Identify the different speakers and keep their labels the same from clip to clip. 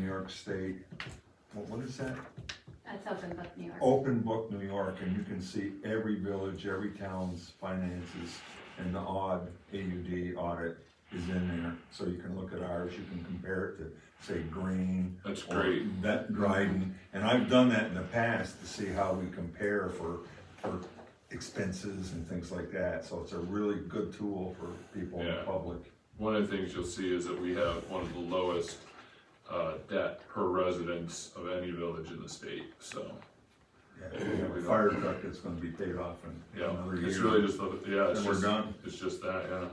Speaker 1: York State, what, what is that?
Speaker 2: That's open book New York.
Speaker 1: Open Book New York, and you can see every village, every town's finances, and the odd AUD audit is in there, so you can look at ours, you can compare it to, say, Green.
Speaker 3: That's
Speaker 1: or
Speaker 3: great.
Speaker 1: That Dryden, and I've done that in the past to see how we compare for, for expenses and things like that, so it's a really good tool for people in the
Speaker 3: Yeah.
Speaker 1: public.
Speaker 3: One of the things you'll see is that we have one of the lowest uh, debt per residence of any village in the state, so.
Speaker 1: Yeah, we have a fire truck that's gonna be paid off in
Speaker 3: Yeah,
Speaker 1: another year.
Speaker 3: it's really just, the- yeah, it's
Speaker 1: And we're
Speaker 3: just,
Speaker 1: done.
Speaker 3: it's just that, yeah.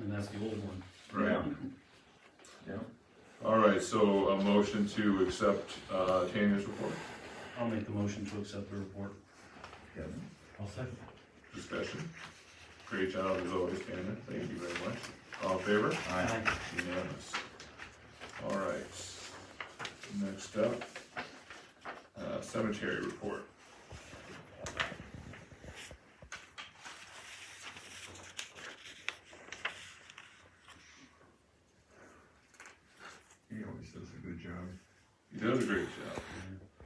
Speaker 4: And that's the old one.
Speaker 3: Right.
Speaker 1: Yeah.
Speaker 3: All right, so a motion to accept uh, Tanya's report,
Speaker 4: I'll make the motion to accept the report.
Speaker 1: Yeah.
Speaker 4: I'll second.
Speaker 3: discussion. Great job as always, Tanya, thank you very much. All in favor?
Speaker 1: Aye.
Speaker 3: Unanimous. All right. Next up, uh, cemetery report.
Speaker 1: He always does a good job.
Speaker 3: He does a great job.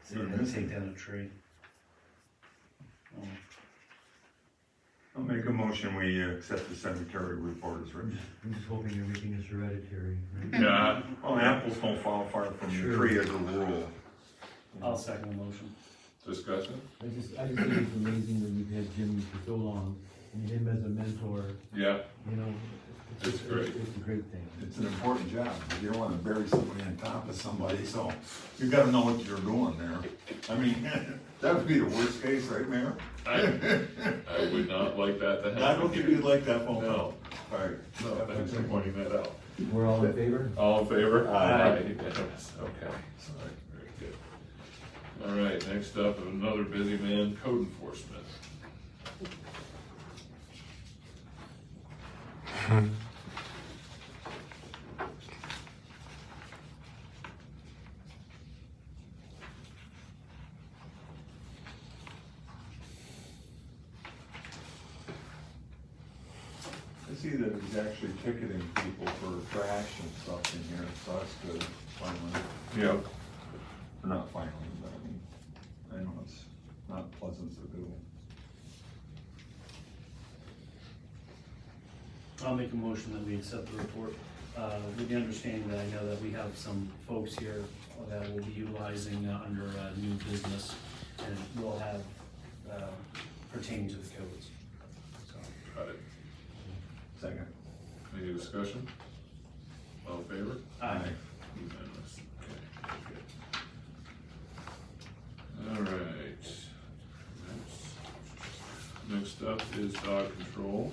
Speaker 4: See, I gotta take down a tree. Oh,
Speaker 1: I'll make a motion, we accept the cemetery report as written.
Speaker 5: I'm just hoping everything is hereditary.
Speaker 3: Mm-hmm.
Speaker 5: right?
Speaker 3: Yeah,
Speaker 1: Well, apples don't fall far from the tree as a rule.
Speaker 4: I'll second the motion.
Speaker 3: discussion?
Speaker 5: I just, I just think it's amazing that you've had Jimmy for so long, and him as a mentor,
Speaker 3: Yeah,
Speaker 5: you know. it's-
Speaker 3: It's great.
Speaker 5: It's it's a great thing.
Speaker 1: It's an important job, you don't wanna bury somebody on top of somebody, so you gotta know what you're doing there. I mean, that would be the worst case, right, Mayor?
Speaker 3: I, I would not like that to happen.
Speaker 1: I don't think you'd
Speaker 3: here.
Speaker 1: like that phone call.
Speaker 3: No,
Speaker 1: Alright.
Speaker 3: no, thanks for pointing that out.
Speaker 5: We're all in favor?
Speaker 3: All in favor?
Speaker 1: Aye.
Speaker 3: Unanimous. Okay, all right, very good. All right, next up, another busy man, code enforcement.
Speaker 1: I see that he's actually ticketing people for trash and stuff in here, so that's good, finally.
Speaker 3: Yeah.
Speaker 1: Or Not finally, but I mean, I know it's not pleasant to do.
Speaker 4: I'll make a motion that we accept the report, uh, with the understanding that I know that we have some folks here that will be utilizing uh, under, uh, new business and will have, uh, pertaining to the codes. So,
Speaker 3: Got it.
Speaker 1: Second.
Speaker 3: Any discussion? All in favor?
Speaker 4: Aye.
Speaker 3: Unanimous. Okay, very good. All right. Next- Next up is dog control.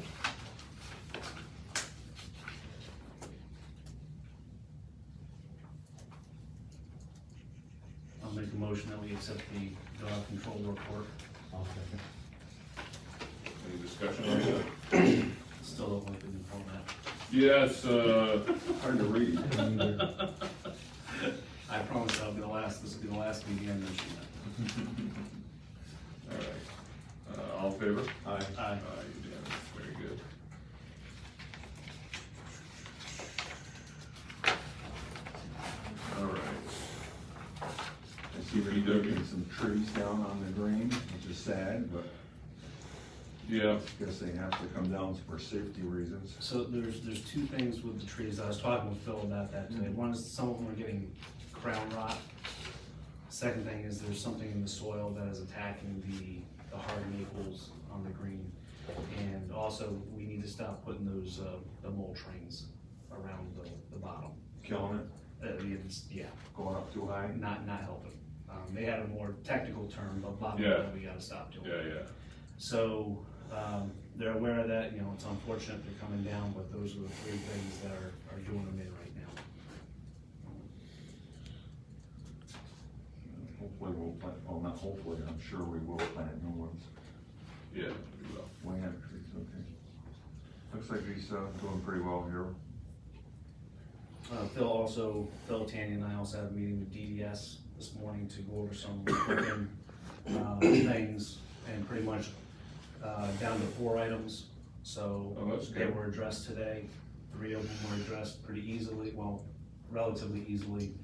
Speaker 4: I'll make a motion that we accept the dog control report.
Speaker 5: I'll second.
Speaker 3: Any discussion on that?
Speaker 4: Still don't like the new format.
Speaker 3: Yes, uh,
Speaker 1: Hard to read.
Speaker 5: I don't either.
Speaker 4: I promise I'll be the last, this will be the last meeting I mention that.
Speaker 3: all right. Uh, all in favor?
Speaker 1: Aye.
Speaker 4: Aye.
Speaker 3: Aye, unanimous, very good. All right.
Speaker 1: I see that you're getting some trees down on the green, which is sad, but
Speaker 3: Yeah,
Speaker 1: I guess they have to come down for safety reasons.
Speaker 4: So there's, there's two things with the trees, I was talking with Phil about that
Speaker 3: Mm-hmm.
Speaker 4: today, one is some of them are getting crown rot. Second thing is there's something in the soil that is attacking the, the hard maples on the green. And also, we need to stop putting those, uh, the mole trains around the, the bottom.
Speaker 1: Killing it,
Speaker 4: Uh, it's, yeah,
Speaker 1: going up too high.
Speaker 4: not, not helping. Um, they had a more technical term, but bottom,
Speaker 3: Yeah.
Speaker 4: line, we gotta stop doing.
Speaker 3: yeah, yeah.
Speaker 4: So, um, they're aware of that, you know, it's unfortunate they're coming down, but those are the three things that are, are doing them in right now.
Speaker 1: Hopefully we'll plant, well, not hopefully, I'm sure we will plant new ones.
Speaker 3: Yeah, we will.
Speaker 1: We have trees, okay. Looks like he's, uh, doing pretty well here.
Speaker 4: Uh, Phil also, Phil, Tanya and I also had a meeting with DDS this morning to go over some equipment, uh, things, and pretty much, uh, down to four items, so.
Speaker 3: Oh, that's
Speaker 4: They
Speaker 3: good.
Speaker 4: were addressed today, three of them were addressed pretty easily, well, relatively easily.